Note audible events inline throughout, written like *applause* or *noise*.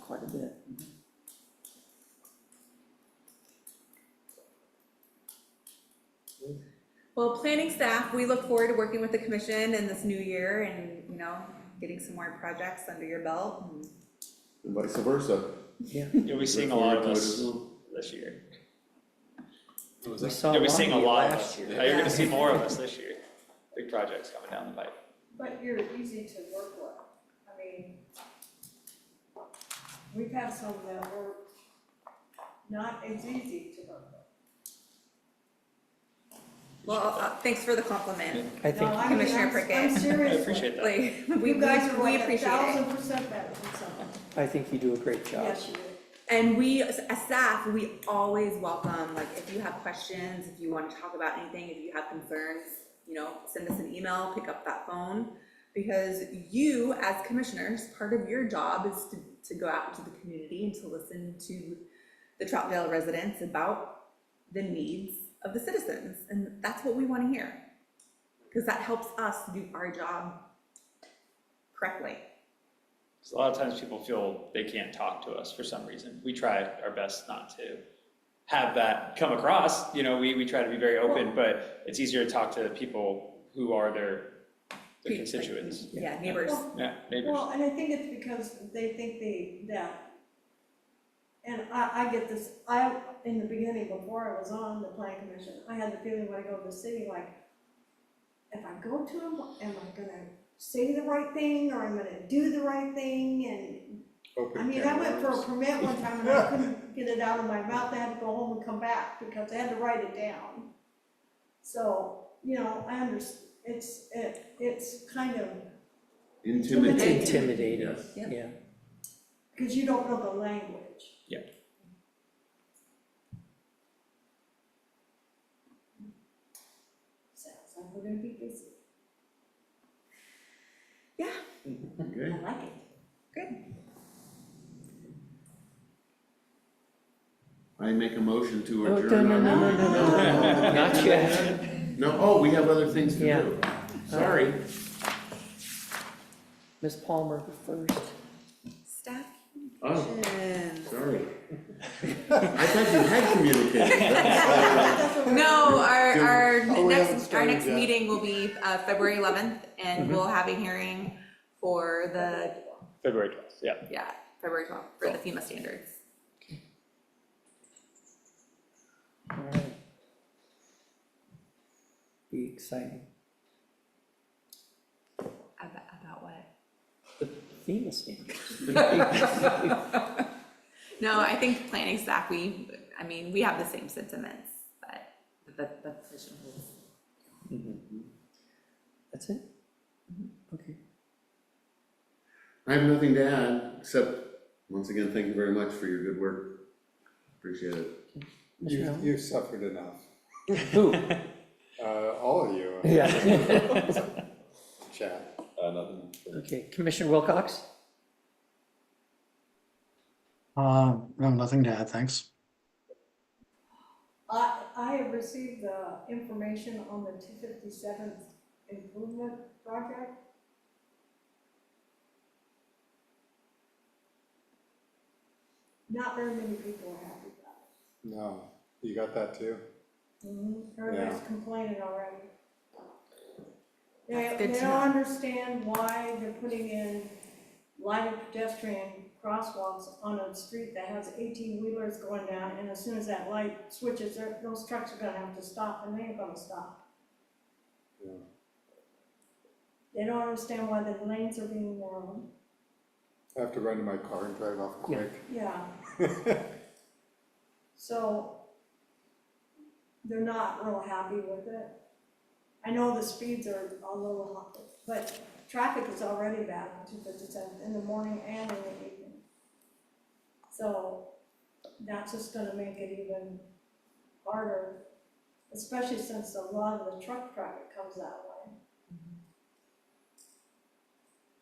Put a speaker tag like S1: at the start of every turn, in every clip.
S1: quite a bit.
S2: Well, planning staff, we look forward to working with the commission in this new year and, you know, getting some more projects under your belt. and-
S3: and vice versa.
S4: You'll be seeing a lot of
S3: Look forward to
S4: us
S3: it
S4: this year.
S5: What was
S1: We
S5: that?
S1: saw
S4: You'll
S1: one
S4: be
S1: of
S4: seeing
S1: you
S4: a lot of
S1: last
S4: us.
S1: year.
S4: Yeah, You're
S2: Yeah.
S1: *laughs*
S4: gonna see more of us this year. Big projects coming down the pipe.
S6: But you're easy to work with, I mean, we've had some that were not as easy to work with.
S2: Well, uh, thanks for the compliment,
S1: I think,
S6: No, I mean,
S2: Commissioner
S6: I'm-
S2: Prickett.
S6: I'm
S4: I
S6: serious.
S4: appreciate that.
S2: like, we, we
S6: You
S2: we
S6: guys
S2: appreciate it.
S6: are like a thousand percent better than some.
S1: I think you do a great job.
S6: Yes, you do.
S2: And we, as as staff, we always welcome, like, if you have questions, if you wanna talk about anything, if you have concerns, you know, send us an email, pick up that phone. Because you, as commissioners, part of your job is to, to go out into the community and to listen to the Troutdale residents about the needs of the citizens, and that's what we wanna hear. Cause that helps us do our job correctly.
S4: 'Cause a lot of times people feel they can't talk to us for some reason. We try our best not to have that come across, you know, we, we try to be very open, but it's easier to talk to people who are their, their constituents.
S2: Yeah, neighbors.
S4: Yeah, neighbors.
S6: Well, and I think it's because they think they, that, and I, I get this, I, in the beginning, before I was on the plan commission, I had the feeling when I go to the city, like, if I go to them, am I gonna say the right thing, or I'm gonna do the right thing, and, I
S5: Open
S6: mean,
S5: can
S6: I
S5: of
S6: went for a
S5: worms.
S6: permit one time, and I couldn't get it out of my mouth, I had to go home and come back, because I had to write it down. So, you know, I under, it's, it, it's kind of
S1: It's
S3: Intimidating.
S1: intimidating,
S3: Yes.
S2: Yeah.
S1: yeah.
S6: Because you don't know the language.
S4: Yeah.
S6: Sounds like we're gonna be busy.
S2: Yeah.
S3: Okay,
S6: I like it.
S3: I make a motion to
S1: Oh,
S3: adjourn
S1: no, no, no,
S3: our.
S1: no, no, no, not yet.
S3: No, oh, we have other things to
S1: Yeah. Oh.
S3: do. Sorry.
S1: Ms. Palmer first.
S2: Staff
S3: Oh,
S2: communications.
S3: sorry. I thought you had communicated. That's-
S6: That's what we're-
S2: No, our, our
S5: Oh, we haven't
S2: next, our
S5: started
S2: next
S5: yet. Mm-hmm.
S2: meeting will be, uh, February eleventh, and we'll have a hearing for the,
S4: February twelfth, yeah.
S2: yeah, February twelfth, for the FEMA standards.
S1: All right. Be exciting.
S2: About, about what?
S1: The FEMA standard.
S2: *laughs* No, I think planning staff, we, I mean, we have the same sentiments, but the, the position holds.
S1: That's it? Mm-hmm. Okay.
S3: I have nothing to add, except, once again, thank you very much for your good work. Appreciate it.
S1: Mr.
S5: You,
S1: Allen?
S5: you suffered enough,
S1: Who? *laughs*
S5: uh, all of you.
S1: Yeah.
S5: Chat.
S1: Okay, Commissioner Wilcox?
S7: Uh, no, nothing to add, thanks.
S6: I, I have received the information on the two fifty-seventh improvement project. Not very many people are happy about it.
S5: No, you got that too?
S6: Mhm, Everybody's complaining already. They,
S2: That's good
S6: they
S2: to
S6: don't understand why they're putting in lighted pedestrian crosswalks on a street that has eighteen wheelers going down, and as soon as that light switches, they're- those trucks are gonna have to stop, and they ain't gonna stop.
S5: Yeah.
S6: They don't understand why the lanes are being narrowed,
S5: I have to run to my car and drive off quick.
S6: yeah. So they're not real happy with it. I know the speeds are a little hot, but traffic is already bad on two fifty-seven in the morning and in the evening. So that's just gonna make it even harder, especially since a lot of the truck traffic comes that way.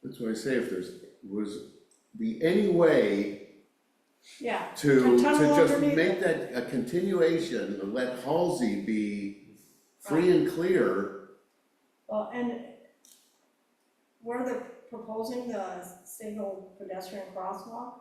S3: That's why I say if there's, was, be any way
S6: Yeah,
S3: to,
S6: A
S3: to
S6: tunnel
S3: just
S6: underneath
S3: make
S6: it.
S3: that a continuation, and let Halsey be free and clear.
S6: Well, and where they're proposing the single pedestrian crosswalk,